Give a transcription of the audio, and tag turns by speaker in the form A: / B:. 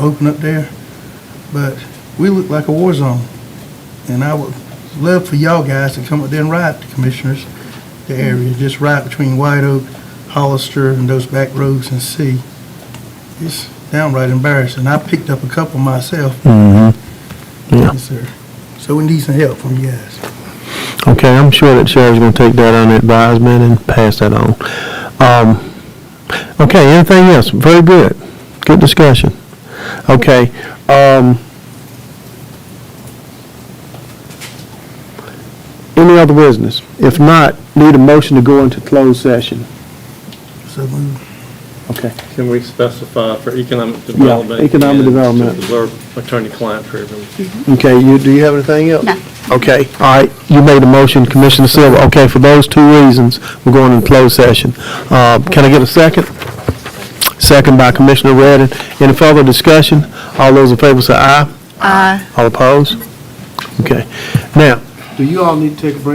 A: open up there, but we look like a war zone. And I would love for y'all guys to come up there and ride the commissioners, the
B: Mm-hmm.
A: area, just right between White Oak, Hollister, and those back roads and see. It's downright embarrassing. I picked up a couple myself.
B: Mm-hmm. Yeah.
A: Yes, sir. So we need some help from you guys.
B: Okay, I'm sure that Sheriff's gonna take that under advisement and pass that on. Um, okay, anything else? Very good. Good discussion. Okay, um, any other business? If not, need a motion to go into closed session.
A: So move.
B: Okay.
C: Can we specify for economic development?
B: development economic and development. to
C: attorney-client privilege.
B: Okay, you, do you have anything else?
D: No.
B: Okay, all right, you made a motion, Commissioner Silver. Okay, for those two reasons, we're going in closed session. Uh, Can I get a second? Second by Commissioner Redden. Any further discussion? All those in favor say aye.
D: Aye.
B: All opposed? Okay. Now,
E: Do you all need to take a break?